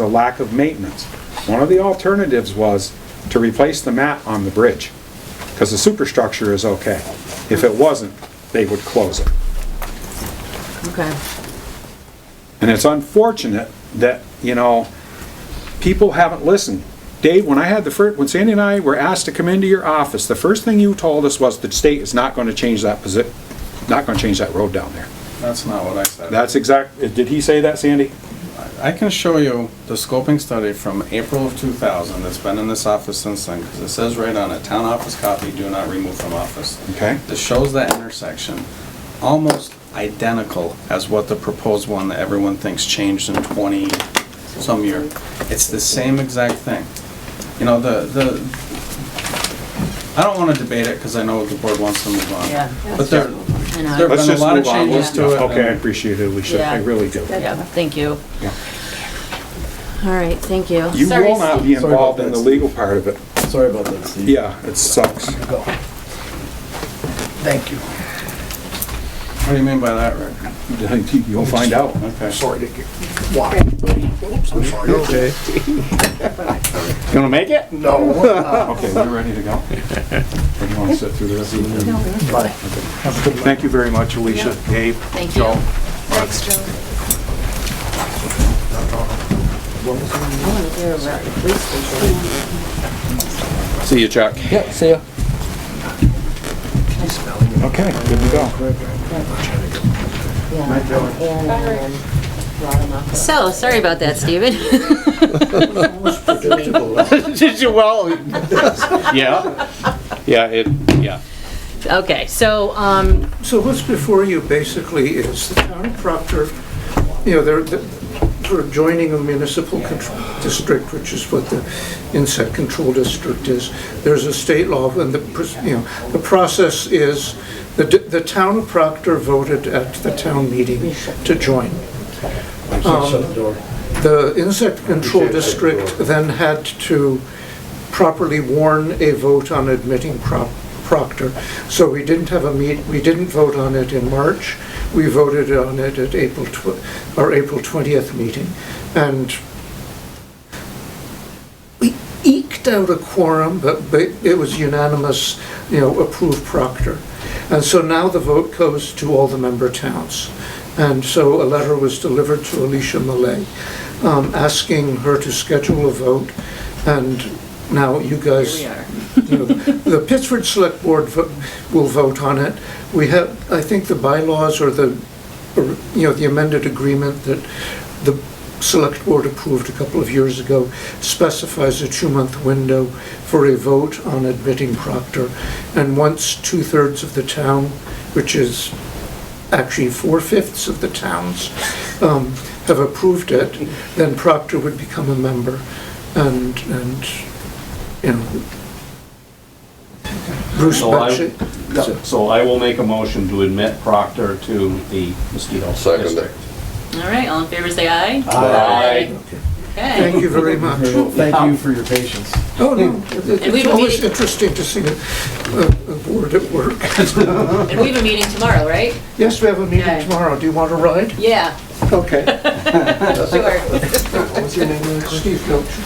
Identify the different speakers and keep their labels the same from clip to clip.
Speaker 1: the lack of maintenance. One of the alternatives was to replace the mat on the bridge, because the superstructure is okay. If it wasn't, they would close it.
Speaker 2: Okay.
Speaker 1: And it's unfortunate that, you know, people haven't listened. Dave, when I had the first, when Sandy and I were asked to come into your office, the first thing you told us was the state is not gonna change that posi, not gonna change that road down there.
Speaker 3: That's not what I said.
Speaker 1: That's exact, did he say that, Sandy?
Speaker 3: I can show you the scoping study from April of 2000 that's been in this office since then, because it says right on it, town office copy, do not remove from office.
Speaker 1: Okay.
Speaker 3: That shows that intersection, almost identical as what the proposed one that everyone thinks changed in 20 some year. It's the same exact thing. You know, the, the, I don't want to debate it, because I know the board wants to move on.
Speaker 2: Yeah.
Speaker 3: But
Speaker 2: I
Speaker 3: there,
Speaker 2: know.
Speaker 3: there have
Speaker 1: Let's
Speaker 3: been a
Speaker 1: just
Speaker 3: lot of
Speaker 1: move on.
Speaker 3: changes to it.
Speaker 1: Let's- Okay, I
Speaker 3: and-
Speaker 1: appreciate it, we should, I
Speaker 2: Yeah.
Speaker 1: really do.
Speaker 2: Yeah, thank you.
Speaker 1: Yeah.
Speaker 2: All right, thank you.
Speaker 1: You
Speaker 2: Sorry,
Speaker 1: will not
Speaker 2: Steve.
Speaker 1: be involved in the
Speaker 4: Steve.
Speaker 1: legal part of it.
Speaker 4: Sorry about that, Steve.
Speaker 1: Yeah, it sucks.
Speaker 4: Go. Thank you.
Speaker 3: What do you mean by that, Rick?
Speaker 1: You'll find out.
Speaker 3: Okay.
Speaker 4: Sorry to get, why? Oops, I'm sorry. Okay.
Speaker 1: You wanna make it?
Speaker 4: No.
Speaker 1: Okay, we're ready to go. Or do you wanna sit through the rest of the-
Speaker 4: Bye.
Speaker 1: Thank you very much, Alicia, Dave,
Speaker 2: Thank you.
Speaker 1: Joe.
Speaker 2: Thanks, Joe. I wanna hear about the police station.
Speaker 3: See you, Chuck.
Speaker 4: Yeah, see ya.
Speaker 1: Okay, good to go.
Speaker 2: And So, sorry about that, Steven.
Speaker 5: Did you, well, yeah, yeah, it, yeah.
Speaker 2: Okay, so, um,
Speaker 6: So what's before you basically is the town of Proctor, you know, they're, they're sort of joining a municipal control district, which is what the insect control district is. There's a state law, and the, pr- you know, the process is, the, d- the town of Proctor voted at the town meeting to join. Um,
Speaker 4: Shut the door.
Speaker 6: The insect control district then had to properly warn a vote on admitting Pro- Proctor. So we didn't have a meet, we didn't vote on it in March. We voted on it at April, tw- our April 20th meeting. And we eked out a quorum, but but it was unanimous, you know, approve Proctor. And so now the vote goes to all the member towns. And so a letter was delivered to Alicia Malay, um, asking her to schedule a vote. And now you guys
Speaker 2: we are.
Speaker 6: you know, The Pittsford Select Board vo- will vote on it. We have, I think the bylaws or the, or, you know, the amended agreement that the Select Board approved a couple of years ago specifies a two-month window for a vote on admitting Proctor. And once two-thirds of the town, which is actually four-fifths of the towns, um, have approved it, then Proctor would become a member. And, and, you know, Bruce
Speaker 5: So I-
Speaker 6: Bocci.
Speaker 5: So I will make a motion to admit Proctor to the mosquito
Speaker 7: Second.
Speaker 5: district.
Speaker 2: All right, all in favor, say aye.
Speaker 5: Aye.
Speaker 2: Okay.
Speaker 6: Thank you very much.
Speaker 4: Thank you for your patience.
Speaker 6: Oh, no, it-
Speaker 2: And we
Speaker 6: it's
Speaker 2: will meet
Speaker 6: always
Speaker 2: again.
Speaker 6: interesting to see a, a board at work.
Speaker 2: And we have a meeting tomorrow, right?
Speaker 6: Yes, we have a meeting
Speaker 2: Okay.
Speaker 6: tomorrow. Do you want to ride?
Speaker 2: Yeah,
Speaker 6: Okay.
Speaker 2: sure.
Speaker 4: What's your name?
Speaker 6: Steve Belcher,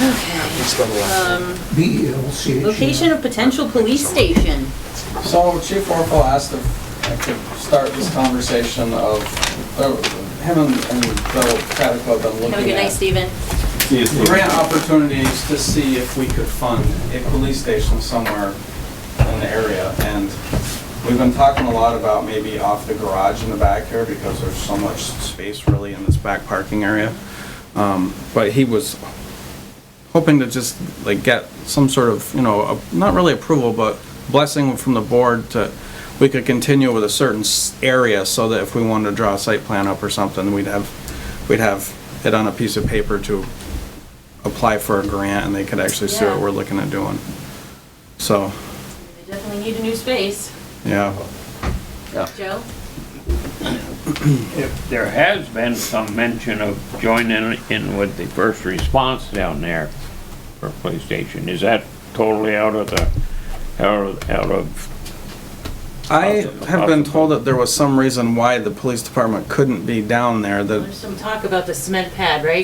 Speaker 6: B E L C H. E R.
Speaker 2: Um, Location of potential police station.
Speaker 3: So Chief Orville asked if I could start this conversation of, uh, him and and Bill Cratico have been looking at.
Speaker 2: Have a good night, Steven.
Speaker 5: See you, Steve.
Speaker 3: Grant opportunities to see if we could fund a police station somewhere in the area. And we've been talking a lot about maybe off the garage in the back here because there's so much space really in this back parking area. Um, But he was hoping to just like get some sort of, you know, a- not really approval, but blessing from the board to, we could continue with a certain s- area so that if we wanted to draw a site plan up or something, we'd have, we'd have it on a piece of paper to apply for a grant and they could actually see
Speaker 2: Yeah.
Speaker 3: what we're looking at doing. So,
Speaker 2: They definitely need a new space.
Speaker 3: yeah.
Speaker 2: Joe?
Speaker 8: If there has been some mention of joining in with the first response down there for police station, is that totally out of the, out of, out of,
Speaker 3: I have been told that there was some reason why the police department couldn't be down there, that
Speaker 2: There's some talk about the cement pad, right?